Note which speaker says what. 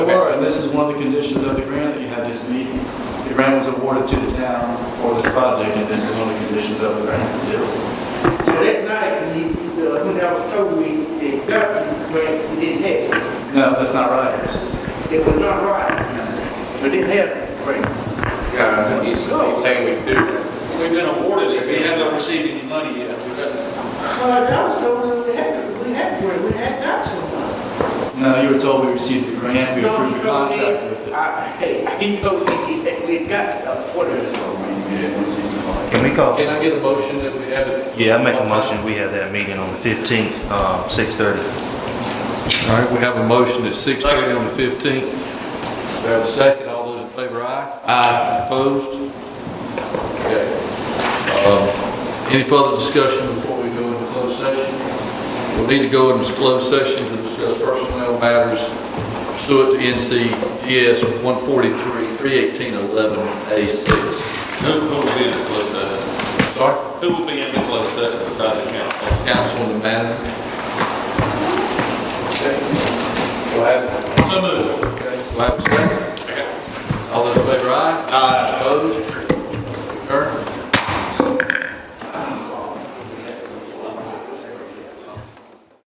Speaker 1: and this is one of the conditions of the grant that you had this meeting. The grant was awarded to the town for this project, and this is one of the conditions of the grant to do.
Speaker 2: So that night, the, the, uh, when I was told we, they got the grant, we didn't have it.
Speaker 1: No, that's not right.
Speaker 2: They were not right. We didn't have the grant.
Speaker 3: Yeah, he's, he's saying we do.
Speaker 4: We've been awarded it, we haven't received any money yet. We've got-
Speaker 2: Well, I was told we had, we had, grant. we had got some.
Speaker 1: No, you were told we received the grant, we approved the
Speaker 2: No, he told me-
Speaker 1: contract with it.
Speaker 2: I- Hey, he told me that we had got a quarter of it.
Speaker 5: Can we call?
Speaker 4: Can I get a motion that we have it?
Speaker 5: Yeah, I make a motion, we have that meeting on the 15th, uh, 6:30.
Speaker 6: All right, we have a motion at 6:30 on the 15th. We have a second, all those in favor, aye? Aye. Opposed? Okay. Um, Any further discussion before we go into closed session? We'll need to go into closed session to discuss personnel matters pursuant to NCGS 143-318-11A6.
Speaker 7: Who who will be in the closed session?
Speaker 6: Sorry,
Speaker 7: Who will be in the closed session besides the council?
Speaker 6: Councilman Madden. Okay. We'll have,
Speaker 7: So moved.
Speaker 6: okay, we'll have a second.